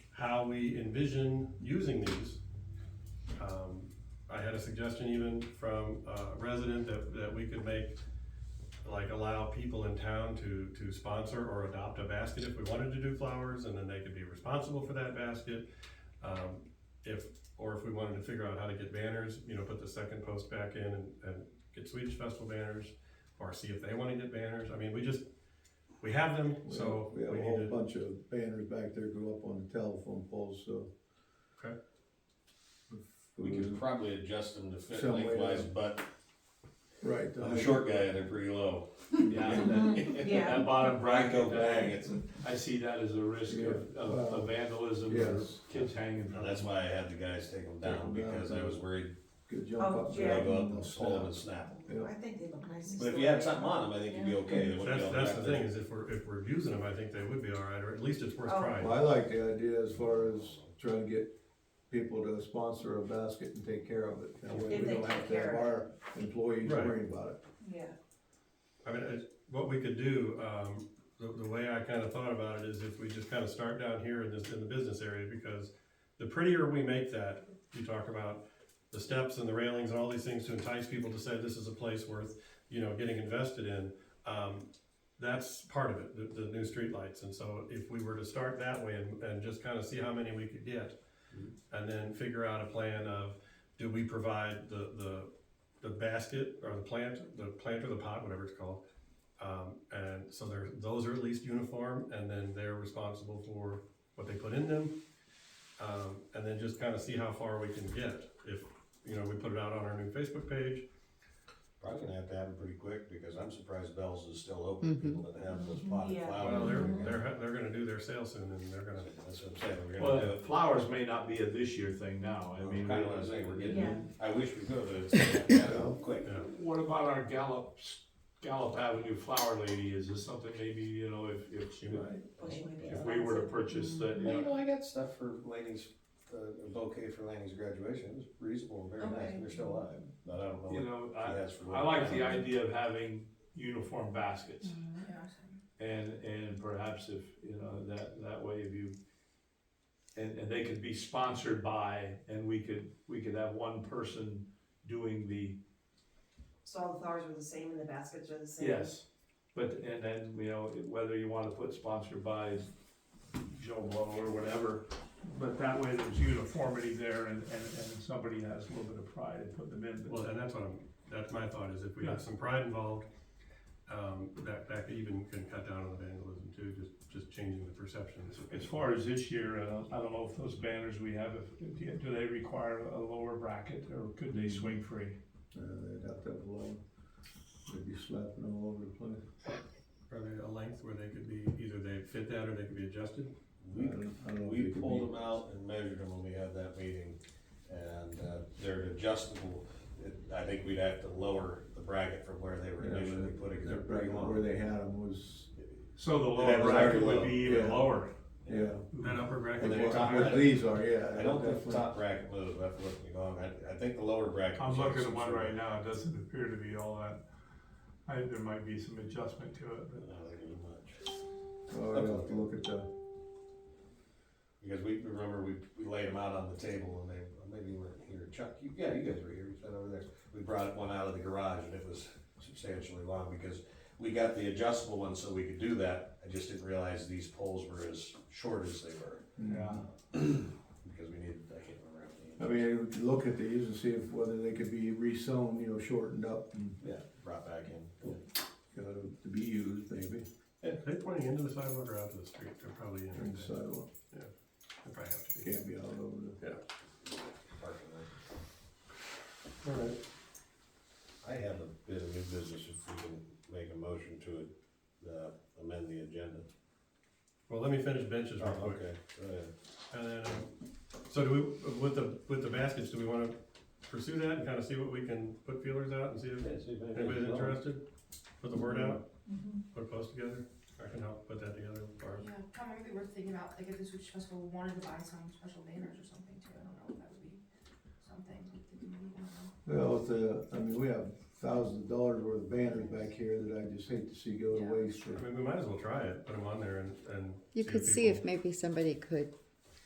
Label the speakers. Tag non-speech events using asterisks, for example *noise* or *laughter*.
Speaker 1: how we envision using these. Um, I had a suggestion even from a resident that, that we could make, like allow people in town to, to sponsor or adopt a basket if we wanted to do flowers, and then they could be responsible for that basket. Um, if, or if we wanted to figure out how to get banners, you know, put the second post back in and, and get Swedish festival banners, or see if they wanna get banners, I mean, we just, we have them,
Speaker 2: We
Speaker 1: so
Speaker 2: have-
Speaker 1: we
Speaker 2: We have a
Speaker 1: need
Speaker 2: whole
Speaker 1: to,
Speaker 2: bunch of banners back there go up on the telephone poles, so.
Speaker 1: Okay.
Speaker 3: We could probably adjust them to fit
Speaker 2: Mm-hmm. Some way to-
Speaker 3: lengthwise, but
Speaker 2: Right.
Speaker 3: I'm a short guy and they're pretty low.
Speaker 4: *laughs* Mm-hmm. Yeah,
Speaker 3: *laughs*
Speaker 4: that-
Speaker 5: Yeah.
Speaker 4: that bottom bracket
Speaker 3: Go bang,
Speaker 4: bag,
Speaker 3: it's, a-
Speaker 4: I see that as a risk of,
Speaker 2: Yeah.
Speaker 4: of of vandalism or
Speaker 2: Yes.
Speaker 4: kids hanging.
Speaker 3: now that's why I had the guys take them down,
Speaker 2: Take 'em down.
Speaker 3: because I was worried
Speaker 2: Could jump
Speaker 5: Oh,
Speaker 2: up.
Speaker 3: they'd
Speaker 5: Yeah.
Speaker 3: go
Speaker 2: grab
Speaker 3: up
Speaker 2: 'em,
Speaker 3: and
Speaker 2: they'll
Speaker 3: pull them and
Speaker 2: snap.
Speaker 3: snap them.
Speaker 2: Yeah.
Speaker 5: I think they look nice.
Speaker 3: But if you had something on them, I think you'd be okay. They wouldn't be
Speaker 1: that's,
Speaker 3: all
Speaker 1: that's the
Speaker 3: wrapped
Speaker 1: thing,
Speaker 3: up.
Speaker 1: is if we're, if we're using them, I think they would be alright, or at least it's worth
Speaker 5: Oh.
Speaker 1: trying.
Speaker 2: Well, I like the idea as far as trying to get people to sponsor a basket and take care of it. That way
Speaker 5: If
Speaker 2: we
Speaker 5: they
Speaker 2: don't have
Speaker 5: take
Speaker 2: to have
Speaker 5: care
Speaker 2: our employees
Speaker 1: Right.
Speaker 2: worrying about it.
Speaker 5: Yeah,
Speaker 1: I mean, it's, what we could do, um, the, the way I kinda thought about it is if we just kinda start down here in this, in the business area, because the prettier we make that, you talk about the steps and the railings and all these things to entice people to say this is a place worth, you know, getting invested in, um, that's part of it, the, the new streetlights, and so if we were to start that way and, and just kinda see how many we could get, and then figure out a plan of, do we provide the, the, the basket or the plant, the plant or the pot, whatever it's called, um, and so they're, those are at least uniform, and then they're responsible for what they put in them. Um, and then just kind of see how far we can get, if, you know, we put it out on our new Facebook page,
Speaker 3: Probably gonna have to have them pretty quick, because I'm surprised Bell's is still open, people that have those potted
Speaker 5: Mm-hmm. Yeah.
Speaker 3: flowers.
Speaker 1: well, they're, they're, they're gonna do their sale soon, and they're gonna,
Speaker 3: That's what I'm saying, we're gonna do
Speaker 4: Well,
Speaker 3: it.
Speaker 4: flowers may not be a this year thing now, I
Speaker 3: I
Speaker 4: mean.
Speaker 3: mean, kinda what I'm saying, we're
Speaker 5: Yeah.
Speaker 3: getting, I wish we could, but
Speaker 5: *laughs*
Speaker 3: it's, yeah, quick.
Speaker 1: yeah.
Speaker 4: What about our Gallup, Gallup Avenue Flower Lady, is this something maybe, you know, if, if,
Speaker 5: well, she might be
Speaker 4: if we were to
Speaker 5: expensive.
Speaker 4: purchase that, you
Speaker 3: Well, you
Speaker 4: know,
Speaker 3: know, I got stuff for Laney's, uh, a bouquet for Laney's graduation, it was reasonable, and very nice,
Speaker 5: Okay.
Speaker 3: they're still alive, but I don't know. what
Speaker 4: you know,
Speaker 3: she
Speaker 4: I,
Speaker 3: has for
Speaker 4: I
Speaker 3: later.
Speaker 4: like the idea of having uniform baskets.
Speaker 5: Mm-hmm. Yeah.
Speaker 4: And, and perhaps if, you know, that, that way if you, and, and they could be sponsored by, and we could, we could have one person doing the,
Speaker 5: So all the flowers were the same and the baskets are the same?
Speaker 4: yes. But, and then, you know, whether you wanna put sponsored by Joe Blow or whatever, but that way there's uniformity there and, and, and somebody has a little bit of pride and put them in.
Speaker 1: Well, and that's what I'm, that's my thought, is if we have some pride involved, um, that, that could even can cut down on the vandalism too, just, just changing the perception.
Speaker 4: As far as this year, uh, I don't know if those banners we have, if, do they require a lower bracket or could they swing free?
Speaker 2: Uh, they'd have to have a lot, they'd be slapping all over the place.
Speaker 1: Are there a length where they could be, either they fit that or they could be adjusted?
Speaker 3: We,
Speaker 2: I don't- I don't know if
Speaker 3: we
Speaker 2: it could
Speaker 3: pulled
Speaker 2: be-
Speaker 3: them out and measured them when we had that meeting, and, uh, they're adjustable. It- I think we'd have to lower the bracket from where they were
Speaker 2: Yeah,
Speaker 3: initially put it, they
Speaker 2: Their bracket where they had them was,
Speaker 4: So the
Speaker 3: That
Speaker 4: lower
Speaker 3: was
Speaker 4: bracket
Speaker 3: already
Speaker 4: would
Speaker 3: low.
Speaker 4: be even
Speaker 2: Yeah.
Speaker 4: lower.
Speaker 2: yeah.
Speaker 1: That upper bracket.
Speaker 3: And then
Speaker 1: part?
Speaker 3: top
Speaker 2: What
Speaker 3: bracket.
Speaker 2: these are, yeah.
Speaker 3: I don't think the
Speaker 2: definitely.
Speaker 3: top bracket was, if I'm looking wrong, I, I think the lower bracket.
Speaker 6: I'm
Speaker 3: was
Speaker 6: looking at
Speaker 3: some
Speaker 6: one
Speaker 3: sort of-
Speaker 6: right now, it doesn't appear to be all that, I, there might be some adjustment to it,
Speaker 3: I
Speaker 6: but.
Speaker 3: don't think it was much.
Speaker 2: Oh, I'd have to look at the,
Speaker 3: Because we, remember, we, we laid them out on the table and they, maybe you weren't here, Chuck, you, yeah, you guys were here, you sat over there. We brought one out of the garage and it was substantially long because we got the adjustable one so we could do that. I just didn't realize these poles were as short as they were,
Speaker 2: Mm.
Speaker 6: Yeah.
Speaker 3: because we needed, I can't remember.
Speaker 2: Mm-hmm. I
Speaker 3: how many.
Speaker 2: mean, we could look at these and see if, whether they could be re-sewn, you know, shortened up and,
Speaker 3: Yeah, brought back in.
Speaker 2: uh, to be used maybe,
Speaker 1: Are they pointing into the sidewalk or out to the street? They're probably in.
Speaker 2: during the
Speaker 1: They
Speaker 2: sidewalk,
Speaker 1: probably have to be.
Speaker 2: can't be all over the.
Speaker 3: Parking lot.
Speaker 1: All right.
Speaker 3: I have a bit of new business if we can make a motion to, uh, amend the agenda.
Speaker 1: Well, let me finish benches real
Speaker 3: Oh,
Speaker 1: quick.
Speaker 3: okay, go ahead.
Speaker 1: And then, um, so do we, with the, with the baskets, do we wanna pursue that and kinda see what we can put feelers out and see if
Speaker 3: Yeah, see if anything's
Speaker 1: anybody's
Speaker 3: wrong.
Speaker 1: interested? Put the word out,
Speaker 5: Mm-hmm.
Speaker 7: Mhm.
Speaker 1: put a post together. I can help put that together as far as.
Speaker 7: Yeah, probably we were thinking about, like, if the Swedish Festival wanted to buy some special banners or something too, I don't know if that would be something that the committee, I don't know.
Speaker 2: Well, it's, uh, I mean, we have thousands of dollars worth of banners back here that I just hate to see go to
Speaker 7: Yeah.
Speaker 2: waste for.
Speaker 1: I mean, we might as well try it, put them on there and, and.
Speaker 8: You could see if maybe somebody could